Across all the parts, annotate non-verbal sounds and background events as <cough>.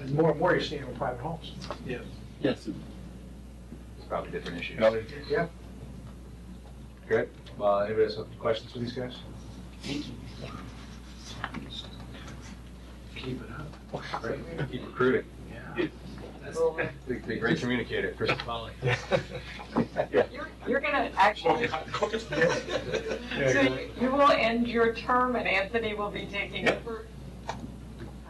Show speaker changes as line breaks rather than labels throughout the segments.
And more and more you're seeing in private homes.
Yes.
Yes.
It's probably different issues.
Ellie,
Yeah.
Good.
uh, anybody else have questions for these guys? Keep it up. Great.
Keep recruiting.
Yeah.
They- They're great communicator, Chris Polly.
You're- You're gonna actually, so you- you will end your term and Anthony will be taking
Yep.
over. I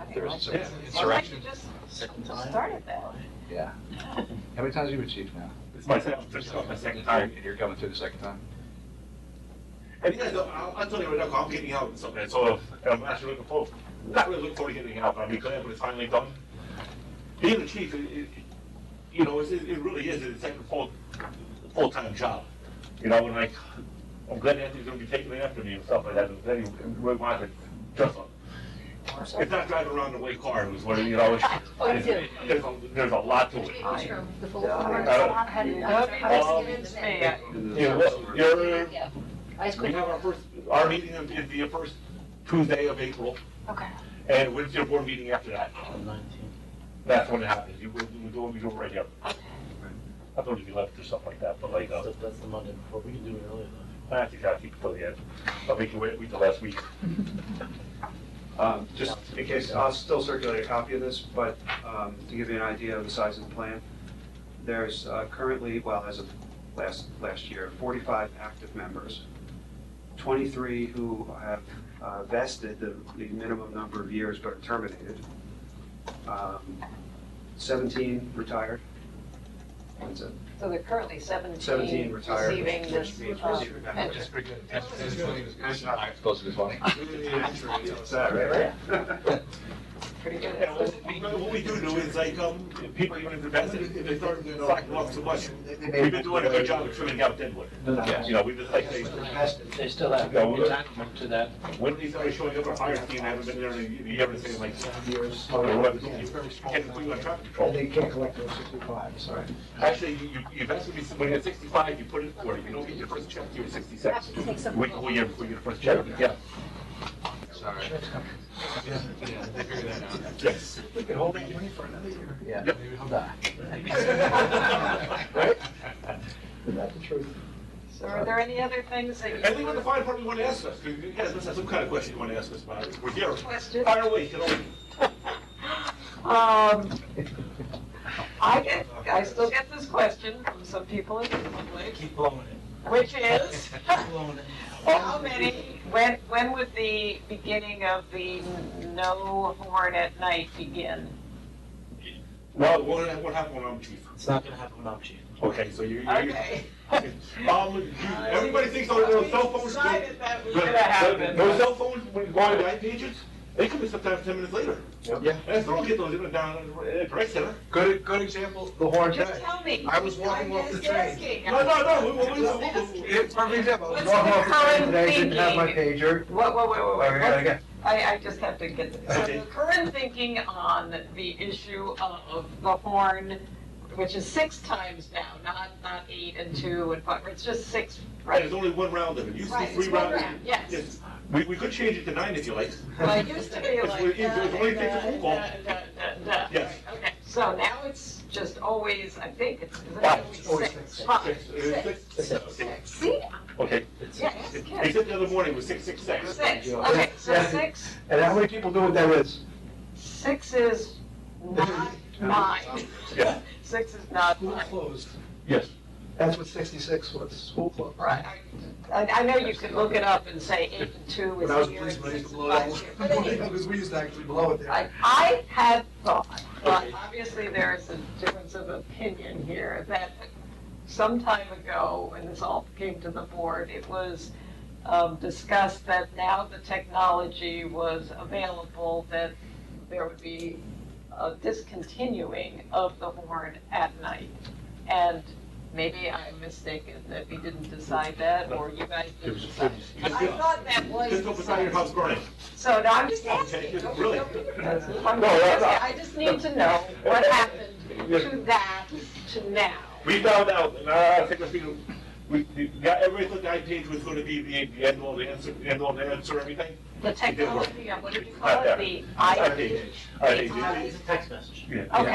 didn't
There's
like
some
that. Sounds like
insurrection.
you just started that.
<laughs> Yeah. How many times have you been chief now?
It's my second, this is my second time.
And you're coming through the second time?
And you guys know, I, I told you, look, I'm getting out and stuff, and so um, I'm actually looking forward, not really looking forward to getting out, but I'm glad when it's finally done. Being the chief, it, it, you know, it's- it, it really is, it's like a full, full-time job. You know, and like, I'm glad Anthony's gonna be taking it after me and stuff like that, I'm glad he really wanted to dress up. It's not driving around in a white car, it was what, you know, it's,
do.
there's a, there's a lot to
<laughs>
it.
Which room? The full
Yeah.
floor?
I don't-
I had it- I
Nope,
was- I was
just
Um,
given
convinced
the
me.
minute.
You know, you're,
Yeah. I just
We
couldn't,
have our first, our meeting is is the first Tuesday of April,
okay.
and when's your board meeting after that? That's when it happens, you, we we do, we do it right here. I thought it'd be left or something like that, but like, uh,
That's the Monday before, we can do it earlier though.
I think I'll keep it till the end, I'll make you wait, wait till last week.
Um, Just in case, I'll still circulate a copy of this, but um, to give you an idea of the size of the plan, there's uh, currently, well, as of last, last year, 45 active members, 23 who have uh, vested the the minimum number of years but are terminated, Um, 17 retired. That's it.
So they're currently
17
seventeen
retired.
receiving
which
this,
um,
means
uh,
receiving
pension.
benefits.
pretty good.
It's Close to the funny.
That's that, right?
Pretty good.
And what- What we do do is like, um, if people even if they're best, if they start slacking off too much, we've been doing a good job of trimming out Deadwood.
<laughs>
Yeah.
You know, we just like, say,
They still have
Yeah, well,
entitlement to that.
when these guys showing up at fire team, I haven't been there in a year, and saying like,
Years.
Oh, what?
It's very small.
Can't do a traffic
And
control.
they can't collect those sixty-five, sorry.
Oh, Actually, you, you- you've asked me, when you're sixty-five, you put in forty, you don't get your first check, you're sixty-six.
Have to take some-
Wait a whole year before you get your first check, yeah.
Sorry.
Yes.
We could hold that money for another year.
Yeah.
Maybe he'll die.
<laughs> Right?
Isn't that the truth?
So are there any other things that
And
you
then when the
would
fire department want to ask us, 'cause you guys must have some kind of question you want to ask us about it, we're here.
question?
Fire away, you know.
Um, I get, I still get this question from some people in the public. Keep blowing it. Which is? <laughs> How many, when, when would the beginning of the no horn at night begin?
Well, what, what happened when I'm chief?
It's not gonna happen without you.
Okay, so you, you.
Okay.
<laughs> Um, you- everybody thinks their their cell
We
phones.
Decided that was
But-
gonna happen.
Those cell phones, when you go on the right pages, they come in sometimes ten minutes later.
Yeah.
And I still don't get those even down at the rec center.
Good, good example, the horn
Just
guy.
tell me.
I was walking off the train.
I'm just asking.
No, no, no, we, we, we- we, we,
It's perfect example. I was
What's
walking
the
off the train
current
today, didn't have my
thinking?
pager.
What, what, wait, wait,
Oh,
wait.
here I
What's-
go.
I, I just have to get this. So
Okay.
the current thinking on the issue of the horn, which is six times now, not, not eight and two and five, it's just six,
right,
right?
there's only one round of it. You see
Right,
three
it's one
rounds.
round, yes.
We, we could change it to nine if you like.
Well, it used to be
It's
like. uh,
when- it's
da,
when you take
da,
the phone call.
da, da, da, da.
Yes.
Right, Okay, so now it's just always, I think it's, is it
Five.
always six? Five.
Six, uh, six, okay.
Six. See,
Okay,
yeah, ask him.
except the other morning was six, six, six.
Six, okay, so
Yeah.
six,
And how many people know what that is?
six is not nine.
Yeah,
Six is not
School
nine.
closed.
yes.
That's what sixty-six was, school closed.
Right. I, I know you could look it up and say eight and two is
When I was a
here and
policeman, I
six is five
used to blow that
here. But
one.
anyway,
Because <laughs> we used to actually blow it
I,
there.
I had thought, but obviously there is a difference of opinion here, that some time ago, when this all came to the board, it was um, discussed that now the technology was available, that there would be a discontinuing of the horn at night. And maybe I'm mistaken that we didn't decide that, or you guys didn't decide. I thought that was
Just go beside your
decided.
house burning.
So no, I'm just
Okay,
asking.
just
Don't-
really.
don't be defensive. I'm
No,
just
that's not-
asking. I just need to know what happened to that to now.
We found out, and I I think if you, we, we got everything I page was gonna be the, the end all, the answer, the end all, the answer, everything.
the
It did work.
technology, um, what did you call it, the
I did.
I,
I did.
It's a text message.
okay,